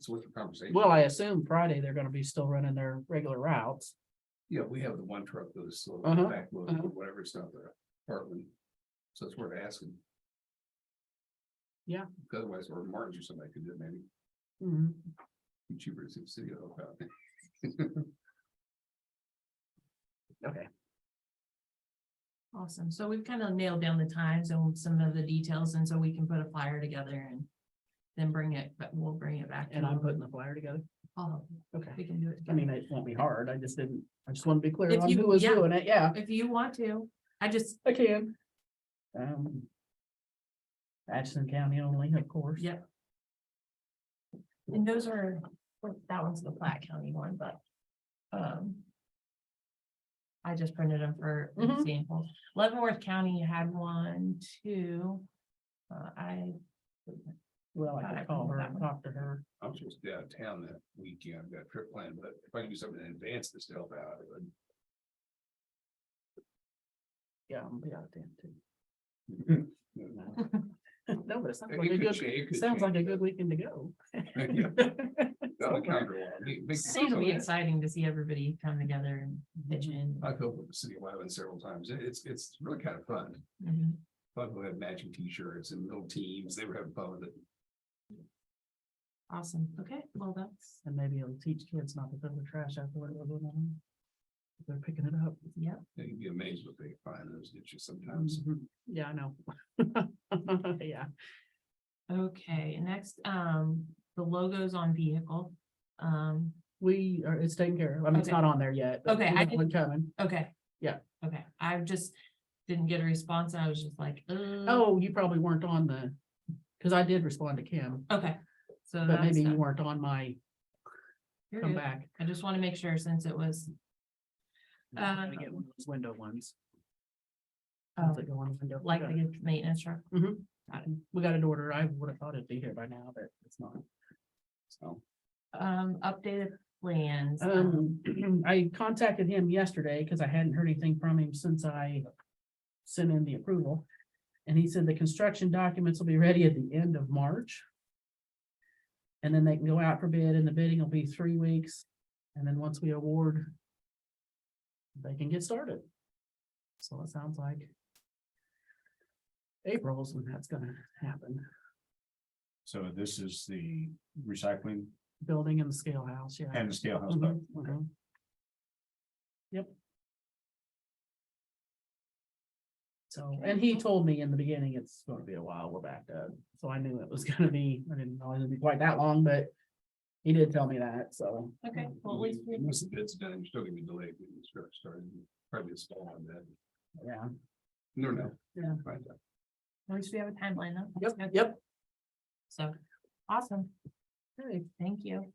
It's worth the conversation. Well, I assume Friday they're gonna be still running their regular routes. Yeah, we have the one truck that is slow, Uh-huh, backload, uh-huh. or whatever, it's not there, Heartland. So it's worth asking. Yeah. Otherwise, or Martin's or somebody could do it maybe, Mm-hmm. Mhm. Be cheaper to see the city. of Oak Island. Awesome. So we've kind of nailed down the times and some of the details, and so we can put a flyer together and then bring it, but we'll bring it back. to And I'm them. putting the flyer together. Oh, Okay. we can do it. I mean, it won't be hard. I just didn't, I just want to be clear If on you- who was yeah. doing it. Yeah, If you want to, I just, I can. Um. Atchison County only, of course. Yeah. and those are, well, that one's the Platte County one, but, um. I just printed them for Mhm. example. Leavenworth County had one, two. Uh, I, Well, I I could call her remember that and one. talk to her. I'm supposed to be out of town that weekend, I've got a trip planned, but if I can do something in advance to help out, I would. Yeah, I'm be out of town too. It No, but it sounds like a could good, cha- it could sounds like a change, good weekend to go. but- Yeah, that would counter a lot. Big- big- it'll be exciting to see everybody come together and pitch Mm-hmm. in. I've helped with the city of Wyland several times, It- it's, it's really kind of fun. Mhm. Fun we had matching t-shirts and little teams, they were having fun with it. Awesome. Okay, well, that's. And maybe it'll teach kids not to throw the trash out the window. when they're- if They're picking it up. Yep, You'd be amazed what they find in those ditches Mm-hmm. sometimes. Mhm. Yeah, I know. Yeah. okay, next, um, the logos on vehicle. Um, We are, it's taken care of. I mean, it's Okay. not on there yet. but Okay, we I got one Coming. okay. Yeah. Okay, I just didn't get a response, I was just like, uh, Oh, you probably weren't on the, because I did respond to Kim, okay. So but that's, maybe you done. weren't on my You're come good. back. I just want to make sure since it was, I'm gonna Uh, get one of those Window ones. uh, ones that go on the window. We like got the maintenance truck. it. We got an order. I would have thought it'd be here by now, but it's not. So, Um, updated plans. um, Um, I contacted him yesterday because I hadn't heard anything from him since I sent in the approval. And he said the construction documents will be ready at the end of March. And then they can go out for bid and the bidding will be three weeks. And then once we award, they can get started. So it sounds like April's when that's gonna happen, So this is the recycling building in the scale house, yeah. and the scale house, Mm-hmm. but Mhm, mhm. Yep. So, and he told me in the beginning, it's gonna be a while, we're backed up, so I knew it was gonna be, I didn't know it would be quite that long, but. He did tell me that, so. Okay, well, at least, we- Once the bid's done, you're still gonna be delayed when you start starting, probably a small on that. Yeah, No, no. Yeah. Find out. at least we have a timeline though. That's yep, good. yep. So, awesome, Okay, thank you.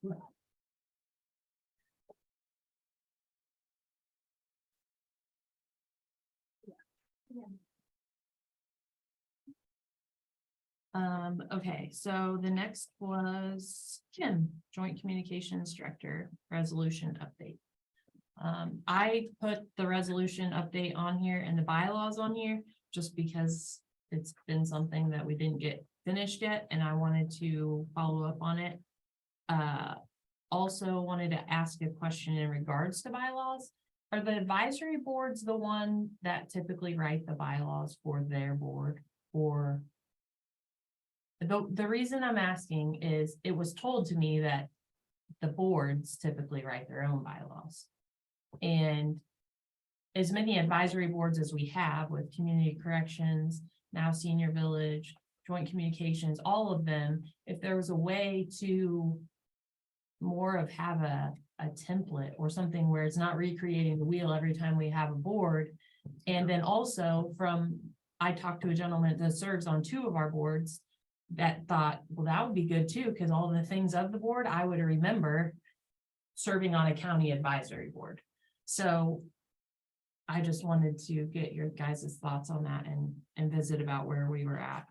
Um, okay, so the next was Kim, Joint Communications Director, Resolution Update. Um, I put the resolution update on here and the bylaws on here, just because it's been something that we didn't get finished yet, and I wanted to follow up on it. Uh, also wanted to ask a question in regards to bylaws. Are the advisory boards the one that typically write the bylaws for their board, or? The, the reason I'm asking is it was told to me that the boards typically write their own bylaws. And as many advisory boards as we have with community corrections, now senior village, joint communications, all of them, if there was a way to more of have a, a template or something where it's not recreating the wheel every time we have a board. And then also from, I talked to a gentleman that serves on two of our boards that thought, well, that would be good too, because all the things of the board, I would remember serving on a county advisory board. So I just wanted to get your guys' thoughts on that and, and visit about where we were at.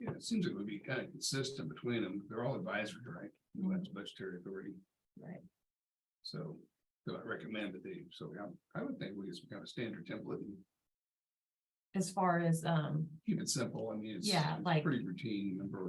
Yeah, it seems like it would be kind of consistent between them, they're all advisory, right? No one's budgetary authority, Right. so, so I recommend that they, so I, I would think we just kind of standard template. and as um, far as, um, keep it simple, I mean, it's. Yeah, it's like- Pretty routine number